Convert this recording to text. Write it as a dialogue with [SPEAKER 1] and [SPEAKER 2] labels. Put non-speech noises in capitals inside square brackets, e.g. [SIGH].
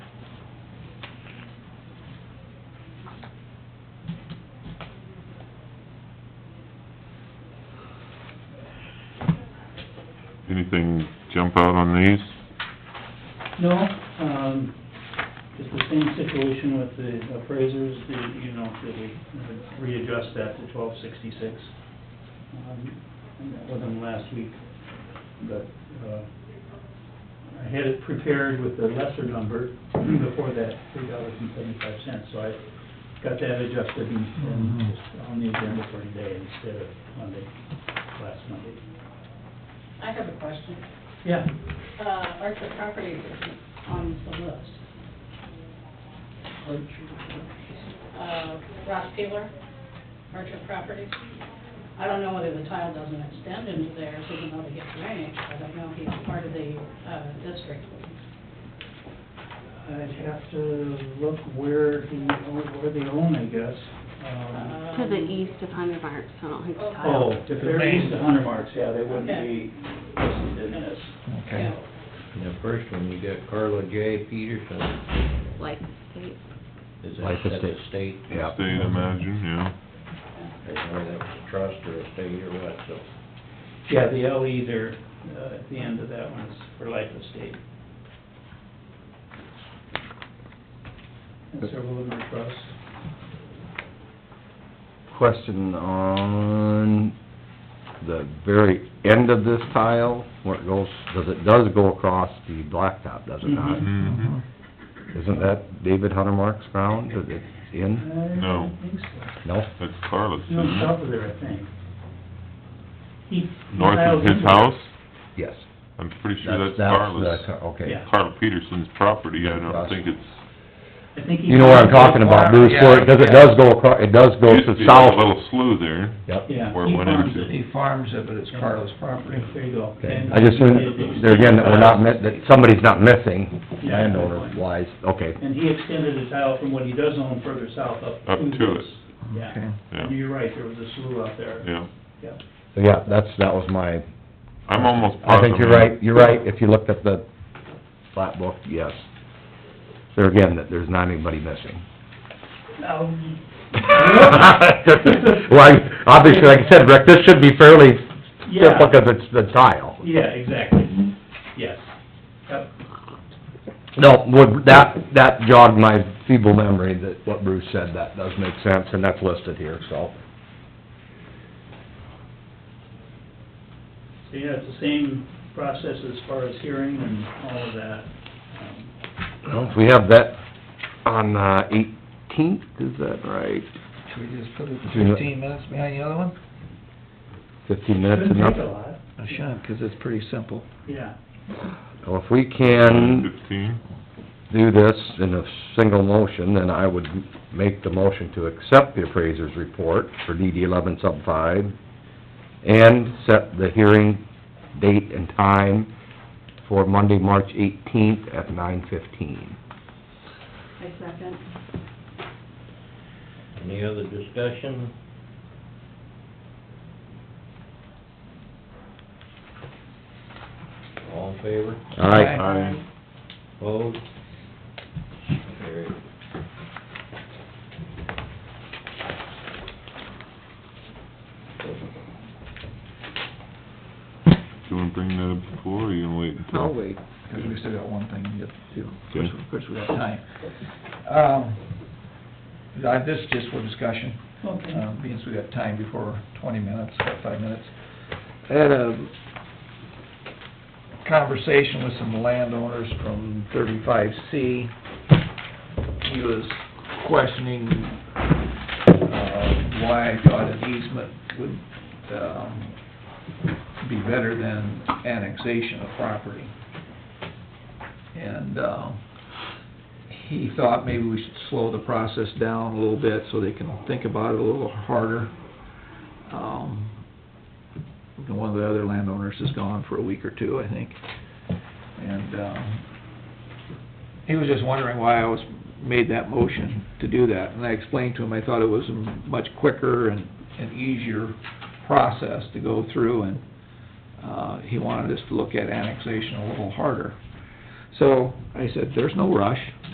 [SPEAKER 1] Anything jump out on these?
[SPEAKER 2] No, um, it's the same situation with the appraisers, the, you know, that we readjust that to twelve sixty-six. Um, That was in last week, but, uh, I had it prepared with the lesser number before that, three dollars and seventy-five cents, so I got that adjusted and, and on the agenda for today instead of Monday, last Monday.
[SPEAKER 3] I have a question.
[SPEAKER 2] Yeah,
[SPEAKER 3] Uh, are the properties on the list? Uh, Ross Taylor, Archer Properties. I don't know whether the tile doesn't extend into theirs, even though they get drainage. I don't know if he's part of the, uh, district.
[SPEAKER 2] I'd have to look where he, where they own, I guess. Um,
[SPEAKER 3] Um,
[SPEAKER 4] To the east of Hundred Marks, so I don't think it's
[SPEAKER 2] Oh,
[SPEAKER 4] tiled.
[SPEAKER 2] if they're east of Hunter Marks, yeah, they wouldn't
[SPEAKER 3] Okay.
[SPEAKER 2] be listed in this.
[SPEAKER 5] Okay.
[SPEAKER 3] Yeah.
[SPEAKER 6] And the first one, you got Carla J. Peterson.
[SPEAKER 4] like the state.
[SPEAKER 6] Is that,
[SPEAKER 5] Like a
[SPEAKER 6] that's a
[SPEAKER 5] state.
[SPEAKER 6] state?
[SPEAKER 5] Yeah.
[SPEAKER 1] State, imagine, yeah.
[SPEAKER 6] I don't know whether that's a trust or a state or what, so.
[SPEAKER 2] Yeah, the LE there, uh, at the end of that one is for life estate. And several of them are trusts.
[SPEAKER 5] Question on the very end of this tile, where it goes, does it does go across the blacktop, does it not?
[SPEAKER 2] Mhm.
[SPEAKER 1] Mm-hmm.
[SPEAKER 5] Isn't that David Huntermark's ground that it's in?
[SPEAKER 1] No. Mm-hmm.
[SPEAKER 2] I don't think so.
[SPEAKER 5] No?
[SPEAKER 1] That's Carlos,
[SPEAKER 2] No,
[SPEAKER 1] isn't
[SPEAKER 2] south
[SPEAKER 1] it?
[SPEAKER 2] of there, I think. He- he
[SPEAKER 1] North
[SPEAKER 2] dialed
[SPEAKER 1] of his
[SPEAKER 2] into-
[SPEAKER 1] house?
[SPEAKER 5] Yes.
[SPEAKER 1] I'm pretty sure that's uh,
[SPEAKER 5] that's-
[SPEAKER 1] Carlos.
[SPEAKER 5] Okay.
[SPEAKER 2] Yeah.
[SPEAKER 1] Carl Peterson's property, I don't think it's,
[SPEAKER 2] I think he
[SPEAKER 5] You know what I'm
[SPEAKER 2] dialed into
[SPEAKER 5] talking about,
[SPEAKER 2] the
[SPEAKER 5] Bruce, where it, cause it does go across, it does go
[SPEAKER 1] used to
[SPEAKER 5] to
[SPEAKER 1] be a
[SPEAKER 5] south.
[SPEAKER 1] little slough there.
[SPEAKER 5] Yep.
[SPEAKER 2] Yeah.
[SPEAKER 1] Where it
[SPEAKER 2] he
[SPEAKER 1] went
[SPEAKER 2] farms
[SPEAKER 1] into.
[SPEAKER 2] it.
[SPEAKER 6] He farms
[SPEAKER 7] uh,
[SPEAKER 6] it, but it's Carla's property.
[SPEAKER 2] There you go.
[SPEAKER 5] Okay,
[SPEAKER 2] And-
[SPEAKER 5] I just, assumed there again, that we're not, mi- that somebody's not missing,
[SPEAKER 2] Yeah.
[SPEAKER 5] landowner wise, okay.
[SPEAKER 2] And he extended the tile from what he does own further south up.
[SPEAKER 1] Up to
[SPEAKER 2] this.
[SPEAKER 1] it.
[SPEAKER 2] Yeah,
[SPEAKER 1] Yeah.
[SPEAKER 2] And you're right, there was a slough out there.
[SPEAKER 1] Yeah,
[SPEAKER 2] Yeah.
[SPEAKER 5] Yeah, that's, that was my
[SPEAKER 1] I'm almost
[SPEAKER 5] I
[SPEAKER 1] positive.
[SPEAKER 5] think you're right, you're right, if you looked at the flat book, yes. There again, that there's not
[SPEAKER 2] [LAUGHS]
[SPEAKER 5] anybody missing.
[SPEAKER 2] Now,
[SPEAKER 5] Well, I- obviously, like I said, Rick, this should be fairly simple,
[SPEAKER 2] yeah,
[SPEAKER 5] because it's the tile.
[SPEAKER 2] yeah, exactly, yes. Yep.
[SPEAKER 5] No, would, that, that jogged my feeble memory, that what Bruce said, that does make sense, and that's listed here, so.
[SPEAKER 2] So, yeah, it's the same process as far as hearing and all of that. Um,
[SPEAKER 5] Well, if we have that on uh, eighteenth, is that right?
[SPEAKER 6] Should we just put it
[SPEAKER 5] Do you- 15
[SPEAKER 6] minutes behind the other one?
[SPEAKER 5] Fifteen minutes
[SPEAKER 2] Couldn't take a
[SPEAKER 5] enough?
[SPEAKER 2] lot,
[SPEAKER 6] I shouldn't, 'cause it's pretty simple.
[SPEAKER 2] yeah,
[SPEAKER 5] Well, if we can
[SPEAKER 1] Fifteen,
[SPEAKER 5] do this in a single motion, then I would make the motion to accept the appraiser's report for DD eleven sub five and set the hearing date and time for Monday, March eighteenth at nine fifteen.
[SPEAKER 3] I second.
[SPEAKER 6] Any other discussion? All in favor?
[SPEAKER 5] Aye.
[SPEAKER 1] I,
[SPEAKER 6] Opposed? Carried.
[SPEAKER 1] do you wanna bring that up before, or you gonna wait until?
[SPEAKER 7] I'll wait, because we still got one thing to get to, of course, of course, we have time. Um, I- this is just for discussion,
[SPEAKER 2] okay.
[SPEAKER 7] um, because we got time before twenty minutes, about five minutes. I had a conversation with some landowners from thirty-five C. He was questioning, uh, why I thought an easement would, um, be better than annexation of property. And, uh, he thought maybe we should slow the process down a little bit so they can think about it a little harder. Um, one of the other landowners is gone for a week or two, I think. And, um, he was just wondering why I was, made that motion to do that. And I explained to him, I thought it was a much quicker and, and easier process to go through and, uh, he wanted us to look at annexation a little harder. So I said, there's no rush.